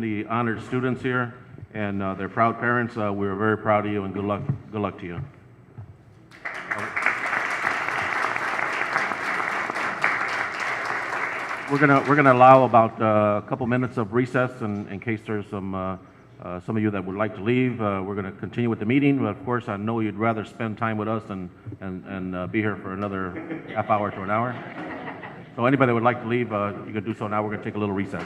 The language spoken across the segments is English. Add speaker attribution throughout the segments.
Speaker 1: the honored students here and uh, their proud parents. Uh, We're very proud of you and good luck, good luck to you. We're gonna, we're gonna allow about uh, a couple minutes of recess in, in case there's some, uh, uh, some of you that would like to leave. Uh, We're gonna continue with the meeting, but of course, I know you'd rather spend time with us and, and, and uh, be here for another half hour to an hour. So anybody that would like to leave, uh, you can do so now. We're gonna take a little recess.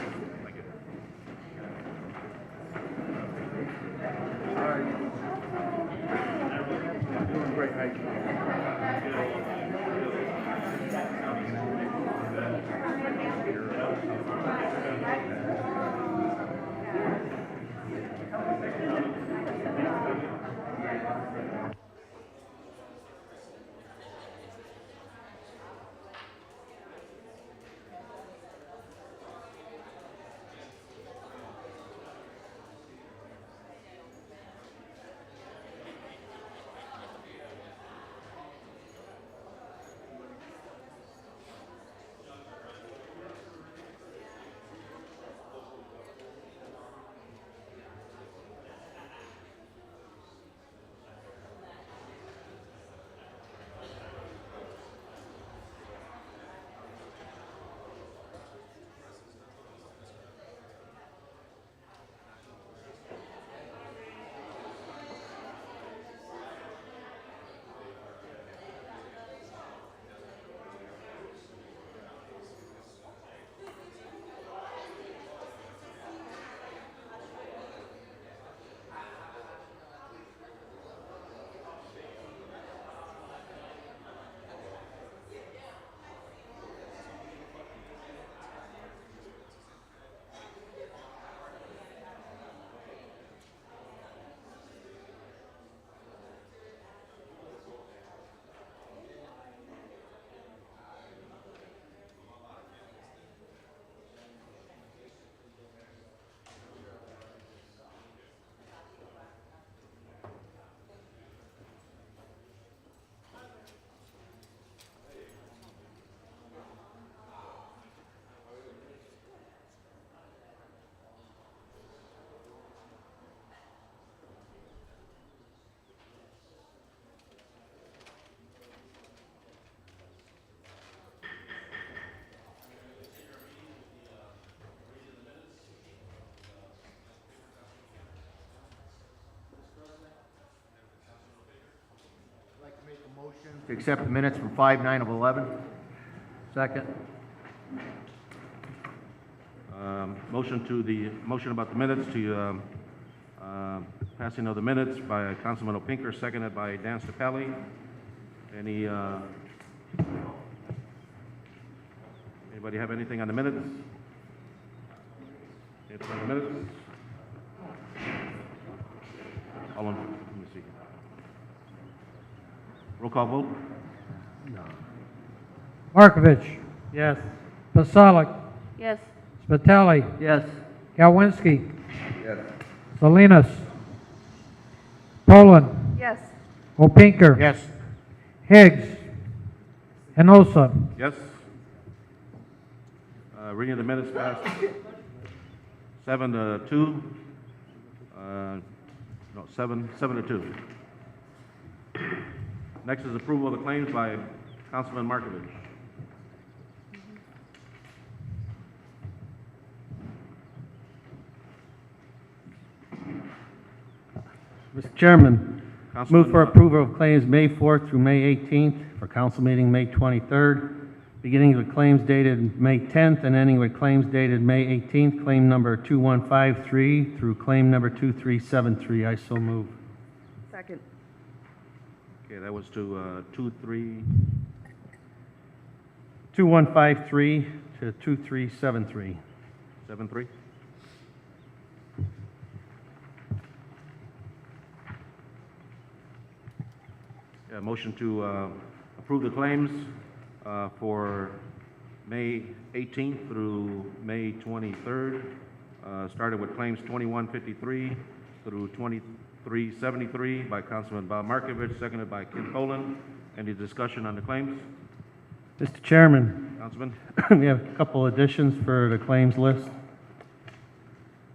Speaker 2: I'd like to make a motion to accept the minutes from five nine of 11. Second.
Speaker 1: Um, Motion to the, motion about the minutes to, um, um, passing of the minutes by Councilman Opinker, seconded by Dan Stapelli. Any, uh, anybody have anything on the minutes? It's on the minutes? All in, let me see. Roll call vote?
Speaker 3: Markovich.
Speaker 2: Yes.
Speaker 3: Pasalic.
Speaker 4: Yes,
Speaker 3: Spitali.
Speaker 2: Yes.
Speaker 3: Galwinski. Salinas. Poland.
Speaker 4: yes,
Speaker 3: Opinker.
Speaker 2: Yes.
Speaker 3: Higgs. Enosa.
Speaker 1: Yes? Uh, Reading of the minutes passed seven to two. Uh, No, seven, seven to two. Next is approval of the claims by Councilman Markovich.
Speaker 5: Mr. Chairman,
Speaker 1: Councilman,
Speaker 5: move for
Speaker 1: uh,
Speaker 5: approval of claims May 4th through May 18th, for council meeting May 23rd, beginning with claims dated May 10th and ending with claims dated May 18th, claim number 2153 through claim number 2373. I so move.
Speaker 4: second,
Speaker 1: Okay, that was to uh, two, three,
Speaker 5: 2153 to 2373.
Speaker 1: seven, three. Yeah, motion to uh, approve the claims uh, for May 18th through May 23rd, uh, starting with claims 2153 through 2373 by Councilman Bob Markovich, seconded by Kim Poland. Any discussion on the claims,
Speaker 5: Mr. Chairman,
Speaker 1: Councilman?
Speaker 5: we have a couple additions for the claims list.